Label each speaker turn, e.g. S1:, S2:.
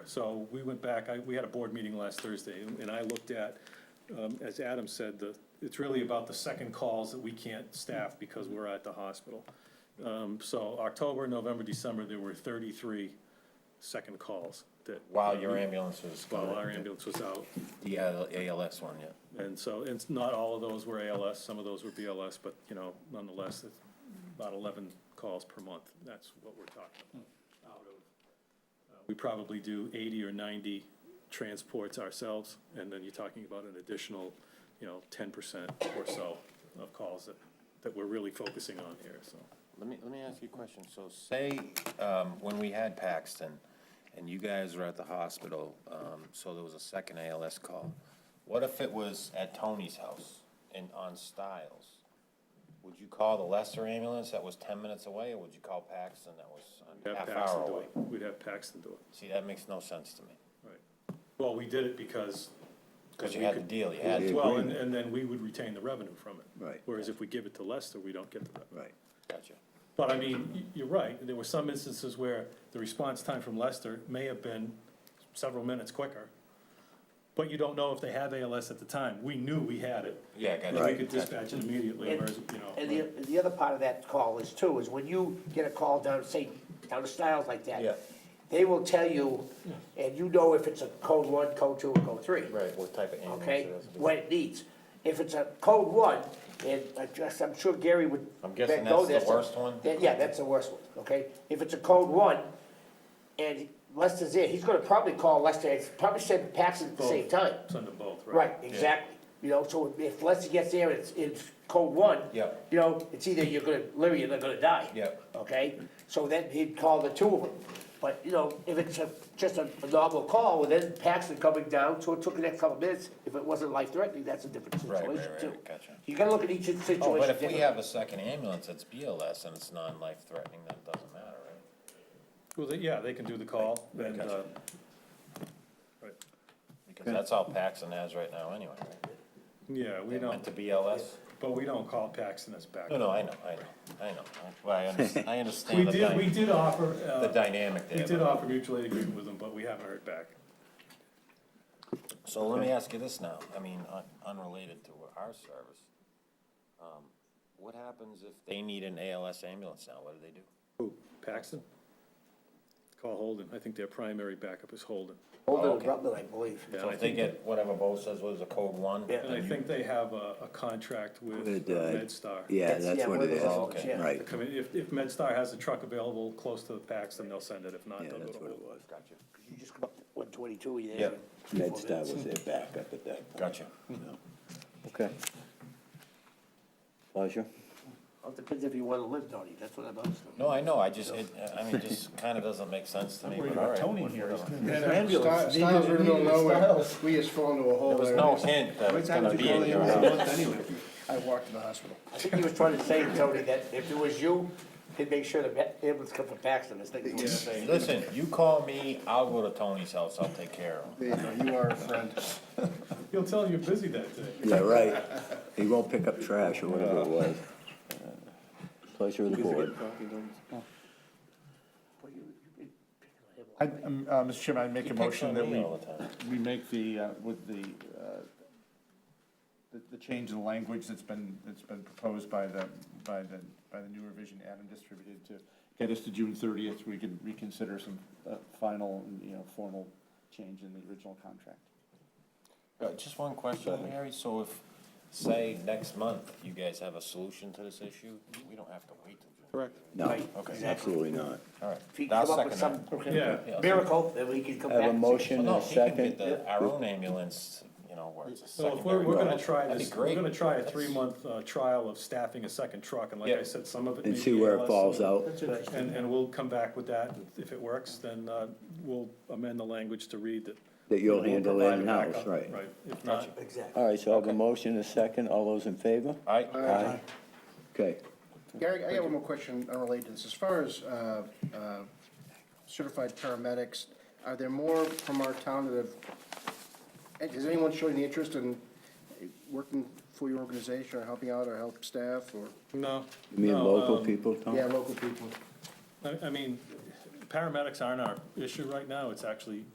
S1: So we went back, I, we had a board meeting last Thursday, and I looked at, um, as Adam said, the, it's really about the second calls that we can't staff because we're at the hospital. Um, so October, November, December, there were thirty-three second calls that. uh,
S2: While your ambulance was.
S1: While our ambulance was out.
S2: The AL- ALS one, yeah.
S1: And so, and it's not all of those were ALS, some of those were BLS, but, you know, nonetheless, it's about eleven calls per month, that's what we're talking about. out of, uh, We probably do eighty or ninety transports ourselves, and then you're talking about an additional, you know, ten percent or so of calls that, that we're really focusing on here, so.
S2: Let me, let me ask you a question. So say, um, when we had Paxton and you guys were at the hospital, um, so there was a second ALS call. What if it was at Tony's house and on Stiles? Would you call the lesser ambulance that was ten minutes away or would you call Paxton that
S1: we'd
S2: was
S1: have
S2: a half
S1: Paxton
S2: hour
S1: do
S2: away?
S1: it. We'd have Paxton do it,
S2: See, that makes no sense to me.
S1: right. Well, we did it because.
S2: Cause you
S1: we
S2: had the
S1: could-
S2: deal, you had,
S3: Yeah.
S2: to.
S1: Well, and, and then we would retain the revenue from it.
S3: Right.
S1: Whereas if we give it to Lester, we don't get the revenue.
S3: Right.
S2: gotcha.
S1: But I mean, y- you're right, there were some instances where the response time from Lester may have been several minutes quicker. But you don't know if they have ALS at the time, we knew we had it,
S2: Yeah,
S1: and we
S2: gotcha.
S1: could dispatch it immediately, whereas, you
S4: And
S1: know.
S4: the, and the other part of that call is too, is when you get a call down, say, down to Styles like
S2: Yeah.
S4: that, they will tell you, and you know if it's a code one, code two, or code three,
S2: Right, what type of ambulance?
S4: okay?
S2: it is.
S4: What it needs. If it's a code one, and I just, I'm sure Gary would.
S2: I'm guessing
S4: know
S2: that's the
S4: this,
S2: worst one?
S4: that- Yeah, that's the worst one, okay? If it's a code one, and Lester's there, he's gonna probably call Lester, it's probably send Paxton at the same time.
S1: Send them both, right?
S4: Right, exactly. You know, so if Lester gets there, and it's, it's code one.
S2: Yeah.
S4: You know, it's either you're gonna, live or you're not gonna die.
S2: Yeah.
S4: Okay, so then he'd call the two of them. But, you know, if it's a, just a a normal call, well, then Paxton coming down, so it took the next couple minutes. If it wasn't life threatening, that's a different
S2: Right, right,
S4: situation too.
S2: right, gotcha.
S4: You gotta look at each situation
S2: Oh, but if we
S4: differently.
S2: have a second ambulance that's BLS and it's non-life threatening, then it doesn't matter, right?
S1: Well, they- yeah, they can do the call, and, uh, right.
S2: Because that's all Paxton has right now anyway, right?
S1: yeah, we
S2: They
S1: don't,
S2: went to BLS.
S1: but we don't call Paxton as
S2: No,
S1: backup.
S2: no, I know, I know, I know. Well, I understand, I
S1: We
S2: understand the
S1: did, we
S2: dy-
S1: did offer,
S2: the
S1: uh,
S2: dynamic
S1: we did
S2: there.
S1: offer mutual aid agreement with them, but we haven't heard back.
S2: but- So let me ask you this now, I mean, un- unrelated to our service. Um, What happens if they need an ALS ambulance now? What do they do?
S1: Who, Paxton? Call Holden, I think their primary backup is Holden.
S4: Older
S2: Oh,
S4: than
S2: okay.
S4: Rutland, I believe.
S1: Yeah,
S2: So
S1: I
S2: if they
S1: think-
S2: get whatever Bo says was a code one?
S4: Yeah.
S1: And I think they have a, a contract with
S3: With,
S1: uh,
S3: uh,
S1: MedStar.
S3: Yeah,
S4: That's-
S3: that's
S4: yeah,
S3: what
S4: one of
S3: it
S4: those
S3: is,
S4: elements,
S2: okay.
S4: yeah.
S3: right,
S1: If, if, if MedStar has a truck available close to the packs, then they'll send it, if not,
S3: yeah,
S1: they'll go
S3: that's
S1: to
S3: what it
S1: Holden.
S3: was.
S2: Gotcha,
S4: You just come up to one twenty-two, you're
S2: Yeah.
S4: there.
S3: MedStar was their backup at that point,
S2: gotcha.
S3: you know. Okay. Pleasure.
S4: Well, it Depends if you wanna live, Tony, that's what I'm asking.
S2: No, I know, I just, it, I mean, it just kind of doesn't make sense to me, but all right. whatever.
S5: Stiles Stiles really don't know where, we just fall into a hole
S2: There was
S5: there.
S2: no hint that it's gonna be in your house.
S5: I walked to the hospital.
S4: I think he was trying to say, Tony, that if it was you, he'd make sure the ma- ambulance come from Paxton, I think is what he's saying.
S2: Listen, you call me, I'll go to Tony's house, I'll take care of him.
S5: There you go, you are a friend.
S1: He'll tell you you're busy that day.
S3: Yeah, right, he won't pick up trash or whatever it was. Uh, Pleasure of the board.
S6: I, um, uh, Mr. Chairman, I make
S2: He
S6: a
S2: picks
S6: motion
S2: on
S6: that
S2: me
S6: we,
S2: all the time.
S6: we make the, uh, with the, uh, the, the change in language that's been, that's been proposed by the, by the, by the new revision Adam distributed to get us to June thirtieth, we can reconsider some, uh, final, you know, formal change in the original contract.
S2: Uh, Just one question, Mary, so if, say, next month, you guys have a solution to this issue, we don't have to wait till June.
S1: Correct.
S3: No,
S4: Right, exactly.
S3: absolutely not.
S2: All right.
S4: If he
S2: I'll
S4: come up with
S2: second
S4: some
S2: that.
S1: Yeah.
S4: miracle, then we can come
S3: I
S4: back.
S3: have a
S4: and say-
S3: motion and
S2: Well, no,
S3: a
S2: he can get
S3: second.
S2: the, our own ambulance, you know, where it's a
S1: So if we're,
S2: secondary.
S1: we're gonna
S2: road.
S1: try
S2: That'd be
S1: this, we're
S2: great.
S1: gonna try a
S2: That's-
S1: three-month, uh, trial of staffing a second truck, and like I
S2: Yeah.
S1: said, some of it may
S3: And
S1: be
S3: see where it
S1: ALS,
S3: falls out.
S1: And, and we'll come back with that, if it works, then, uh, we'll amend the language to read that.
S3: That you'll
S1: we'll
S3: handle
S1: provide a
S3: in-house,
S1: backup,
S3: right.
S1: Right, if not,
S4: Exactly.
S3: All right, so I have a motion and a second, all those in favor?
S2: All right,
S3: Aye. Okay,
S5: Gary, I got one more question unrelated to this. As far as uh, uh, certified paramedics, are there more from our town that have, is anyone showing the interest in working for your organization or helping out or help staff or,
S1: no.
S3: you mean
S1: no,
S3: local
S1: um,
S3: people, Tom?
S5: yeah, local people?
S1: I, I mean, paramedics aren't our issue right now, it's actually